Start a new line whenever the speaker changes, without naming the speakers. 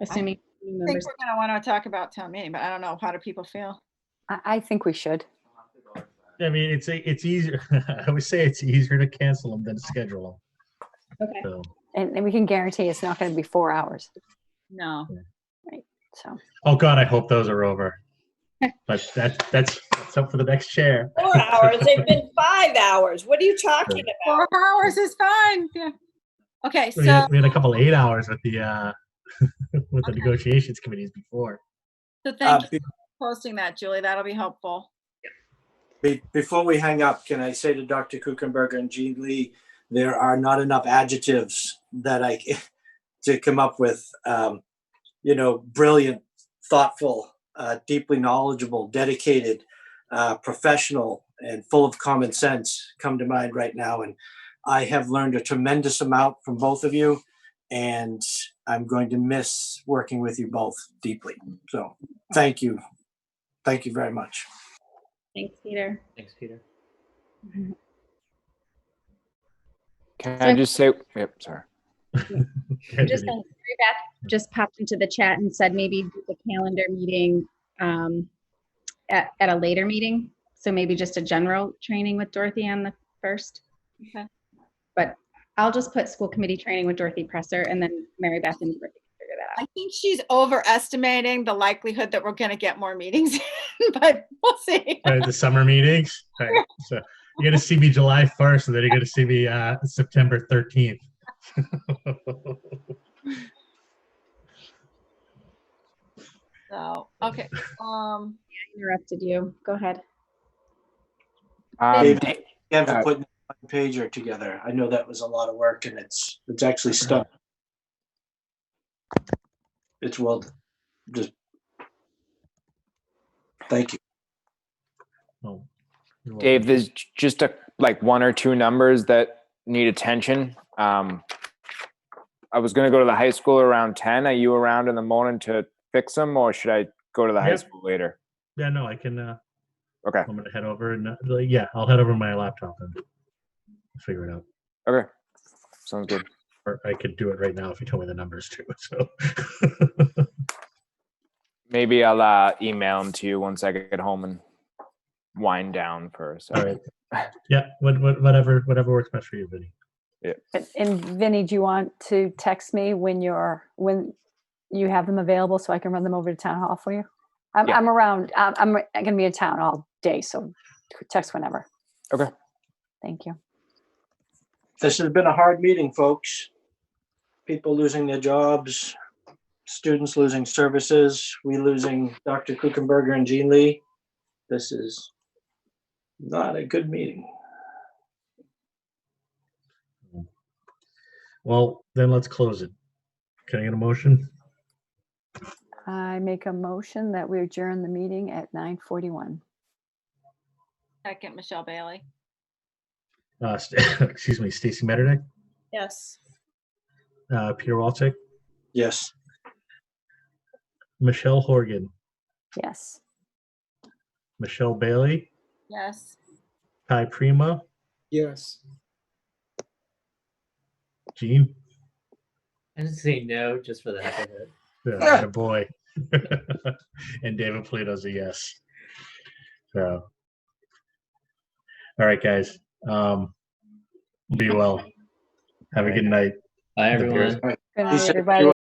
assuming new
I think
members.
we're gonna want to talk about town meeting, but I don't know, how do people feel?
I, I think we should.
I mean, it's, a- it's easier, I would say it's easier to cancel them than to schedule
Okay,
them, so.
And, and we can guarantee it's not going to be four hours.
No.
So,
Oh, God, I hope those are over. But that, that's, that's up for the next chair.
Four hours, they've been five hours. What are you talking about?
Four hours is fine, yeah. Okay,
We
so,
had, we had a couple eight hours with the, uh, with the
Okay.
negotiations committees before.
so
Uh,
thank you
be-
for posting that, Julie, that'll be helpful.
be- Before we hang up, can I say to Dr. Kuchenberger and Jean Lee, there are not enough adjectives that I, ca- to come up with, um, you know, brilliant, thoughtful, uh, deeply knowledgeable, dedicated, uh, professional, and full of common sense come to mind right now. And I have learned a tremendous amount from both of you, and I'm going to miss working with you both deeply. So, thank you. Thank you very much.
thanks, Peter.
Thanks, Peter.
Can
So-
I just say, yep, sorry.
Just, uh, Mary Beth just popped into the chat and said maybe do the calendar meeting um, at, at a later meeting. So maybe just a general training with Dorothy on the first.
Okay.
But I'll just put school committee training with Dorothy Presser and then Mary Beth and Dorothy can figure that out.
I think she's overestimating the likelihood that we're gonna get more meetings, but we'll see.
Right, the summer meetings, right, so you're gonna see me July first, and then you're gonna see me, uh, September thirteenth.
So, okay, um,
I Interrupted you. Go ahead.
Um,
David, you have to
uh,
put one pager together. I know that was a lot of work and it's, it's actually stuck. It's well, just. Thank you.
Oh,
Dave, there's j- just a, like one or two numbers that need attention. Um, I was gonna go to the high school around ten. Are you around in the morning to fix them or should I go to the high
Yep.
school later?
Yeah, no, I can, uh,
Okay,
I'm gonna head over and, uh, like, yeah, I'll head over to my laptop and figure it out.
okay. Sounds good.
Or I could do it right now if you tell me the numbers too, so.
Maybe I'll, uh, email them to you once I get home and wind down for a
All
second.
right. Yeah, what, what, whatever, whatever works best for you, Vinny.
but- and Vinny, do you want to text me when you're, when you have them available so I can run them over to town hall for you? I'm,
Yeah.
I'm around, I'm, I'm going to be in town all day, so text whenever.
Okay.
Thank you.
This has been a hard meeting, folks. People losing their jobs, students losing services, we losing Dr. Kuchenberger and Jean Lee. This is not a good meeting.
Well, then let's close it. Can I get a motion?
I make a motion that we adjourn the meeting at 9:41.
second, Michelle Bailey.
Uh, st- excuse me, Stacy Metternich,
Yes.
uh, Peter Walczyk,
Yes.
Michelle Horgan,
Yes.
Michelle Bailey,
Yes.
Ty Prima,
Yes.
Gene,
I just say no just for the heck of it.
yeah, a boy, and David Polito's a yes. So, all right, guys, um, be well. Have a good night.
Bye,
The beer's
everyone.
Good
He
night,
said-
everybody.